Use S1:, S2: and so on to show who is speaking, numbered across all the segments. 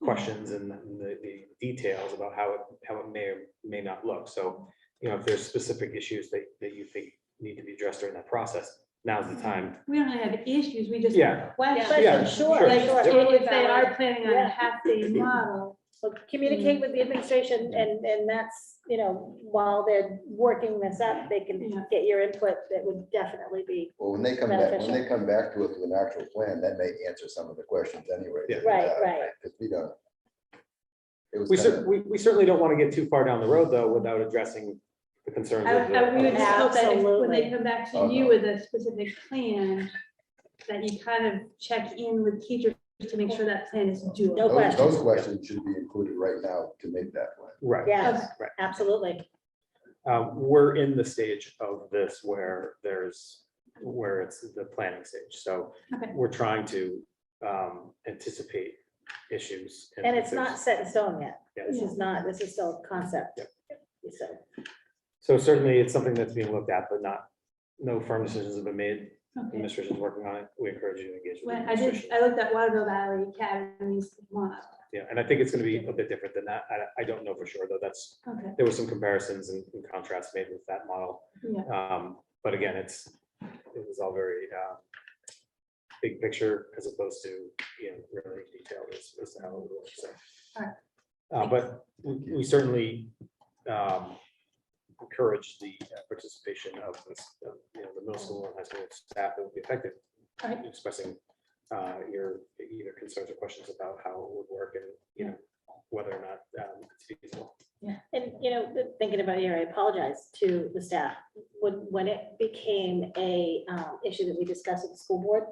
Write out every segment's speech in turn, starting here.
S1: Hmm.
S2: questions and the, the details about how it, how it may or may not look. So, you know, if there's specific issues that, that you think need to be addressed during that process, now's the time.
S1: We don't have issues, we Hmm. just have
S2: Yeah,
S1: questions.
S2: Yeah,
S3: Questions, sure,
S2: sure.
S1: Like,
S3: sure.
S1: and if they are planning on
S3: Yeah.
S1: a half-day model,
S3: So
S2: Mm.
S3: Communicate with the administration and, and that's, you know, while they're working this up, they
S1: Yeah.
S3: can get your input. That would definitely be,
S4: Well, when they come back, when they
S3: Beneficial.
S4: come back to us with an actual plan, that may answer some of the questions anyway.
S2: Yeah.
S3: Right, right.
S4: Because we don't. It was
S2: we
S4: kind
S2: cer- we, we certainly don't want to get too far down the road though without addressing the concerns.
S1: I,
S2: of the-
S1: I, we would just hope that if- when they
S3: Absolutely.
S1: come back to you with a specific plan, that you kind of check in with teachers to make sure that plan is
S3: No
S1: doable.
S4: those,
S3: question.
S4: those questions should be included right now to make that plan.
S2: Right.
S3: yes,
S2: Right.
S3: absolutely.
S2: Uh, We're in the stage of this where there's, where it's the planning stage. So
S1: Okay.
S2: we're trying to um, anticipate issues.
S3: And it's not
S2: there's-
S3: set in stone yet.
S2: yeah.
S3: This is not, this is still a concept. So,
S2: So certainly it's something that's being looked at, but not, no firm decisions have been made.
S1: Okay.
S2: Administration's working on it. We encourage you to engage. with
S1: When
S2: the
S1: I did,
S2: administration.
S1: I looked at Waterville Valley Academy's model,
S2: Yeah, and I think it's going to be a bit different than that. I, I don't know for sure, though. That's,
S1: okay,
S2: there were some comparisons and and contrasts made with that model.
S1: yeah,
S2: Um, but again, it's, it was all very, uh, big picture as opposed to, you know, really detailed as, as to how it would work, so.
S1: Alright.
S2: Uh, but we we certainly, um, encourage the uh, participation of this, of, you know, the middle school and high school staff that would be affected.
S1: Alright.
S2: Expressing, uh, your either concerns or questions about how it would work and, you know, whether or not, um, it's feasible.
S3: and you know, thinking about it here, I apologize to the staff. When, when it became a, um, issue that we discussed with the school board,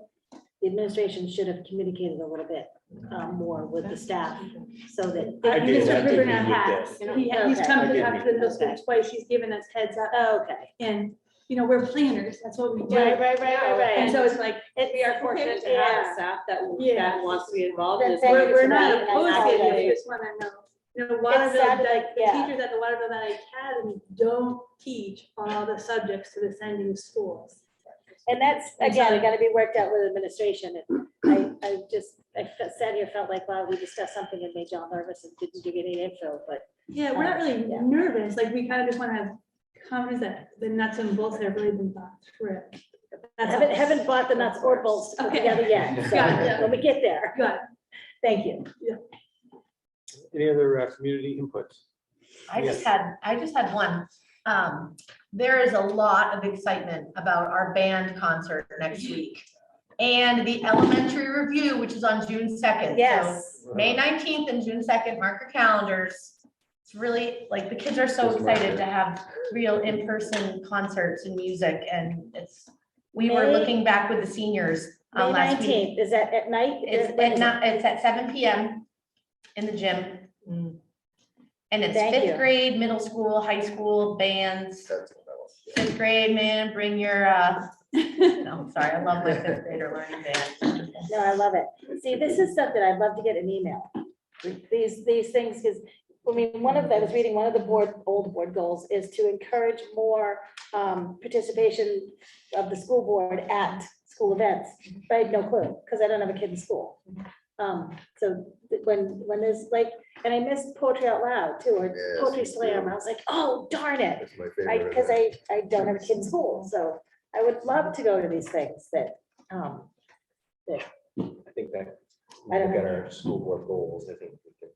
S3: the administration should have communicated a little bit, um, more with the staff so that.
S2: I did,
S1: Mr.
S2: I did
S1: Bruno
S2: meet this.
S1: has, he- he's come
S2: I
S1: to
S2: did
S1: talk to the middle school
S3: Okay.
S1: twice, he's given us heads up,
S3: Okay.
S1: and, you know, we're planners, that's what we do.
S3: Right, right, right, right, right.
S1: And so it's like,
S3: It-
S5: We are fortunate to have
S3: Yeah.
S5: a staff that,
S1: Yeah.
S5: that wants to be involved. in
S3: That's
S5: this
S3: it.
S5: work.
S1: We're, we're
S3: Right,
S1: not
S3: and
S1: opposed to it,
S3: highlighted.
S1: we just wanna know, you know, Waterville,
S3: sounded
S1: like,
S3: like-
S1: the
S3: yeah.
S1: teachers at the Waterville Valley Academy don't teach all the subjects to the sending schools.
S3: And that's,
S1: I'm
S3: again,
S1: sorry.
S3: it gotta be worked out with administration. And I, I just, I fe- sat here, felt like, wow, we discussed something that made John nervous and didn't you get any info, but
S1: Yeah, we're not really
S3: Yeah.
S1: nervous, like, we kinda just wanna have confidence that the nuts and bolts have really been thought through. That's
S3: haven't,
S1: all.
S3: haven't bought the nuts or bolts to put
S1: Okay.
S3: together yet.
S1: Got
S3: So
S1: it.
S3: when we get there,
S1: Good.
S3: thank you.
S2: Any other uh, community input?
S6: I just
S2: Yes.
S6: had, I just had one. Um, there is a lot of excitement about our band concert next
S3: Mm-hmm.
S6: week. And the elementary review, which is on June second.
S3: Yes.
S6: May nineteenth and June second, mark your calendars. It's really, like, the kids are so
S4: Just mark
S6: excited
S4: it.
S6: to have real in-person concerts and music and it's, we were
S3: May-
S6: looking back with the seniors
S3: May
S6: um, last week.
S3: nineteenth, is that at night? Is-
S6: It's
S3: when
S6: at
S3: is it?
S6: not, it's at seven PM in the gym. And it's
S3: Thank you.
S6: fifth grade, middle school, high school, bands,
S4: That's what I want.
S6: fifth grade, man, bring your, uh, no, sorry, I love my fifth grader learning band.
S3: No, I love it. See, this is stuff that I'd love to get an email. These, these things, because, I mean, one of them, I was reading one of the board, old board goals is to encourage more um, participation of the school board at school events. But I had no clue, because I don't have a kid in school. Um, So th- when, when there's like, and I missed poetry out loud too, or
S4: Yes,
S3: poetry
S4: me
S3: slam,
S4: too.
S3: I was like, oh, darn it.
S4: That's my
S3: I,
S4: favorite.
S3: because I, I don't have a kid in school, so I would love to go to these things that, um,
S7: I think that,
S3: I
S7: when
S3: don't
S7: we get our school board goals, I think we can,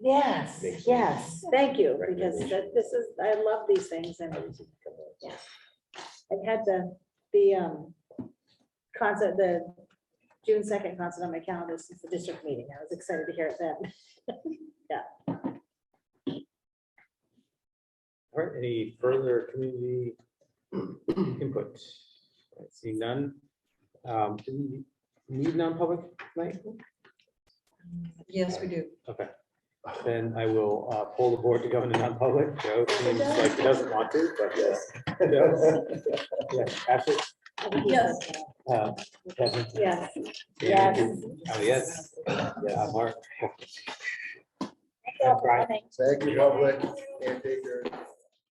S3: Yes,
S7: Makes sense.
S3: yes, thank you, because
S7: Recommendation.
S3: that- this is, I love these things and
S7: obviously, come up.
S3: I've had the, the um concert, the June second concert on my calendar since the district meeting. I was excited to hear it then.
S2: All right, any further community input? I See none. Um, Do we need non-public tonight?
S5: Yes, we do.
S2: Okay. Then I will uh, poll the board to go into non-public. Joe seems like he doesn't want to, but yes. Yes, Ashley,
S3: I think he
S5: Yes.
S3: said,
S2: uh, Kevin,
S3: Yes,
S2: Ian,
S3: yes.
S2: Oh, yes. Yeah, Mark.
S3: Thank you all for
S2: Brian.
S3: coming.
S4: Thank you, public. Can't take your-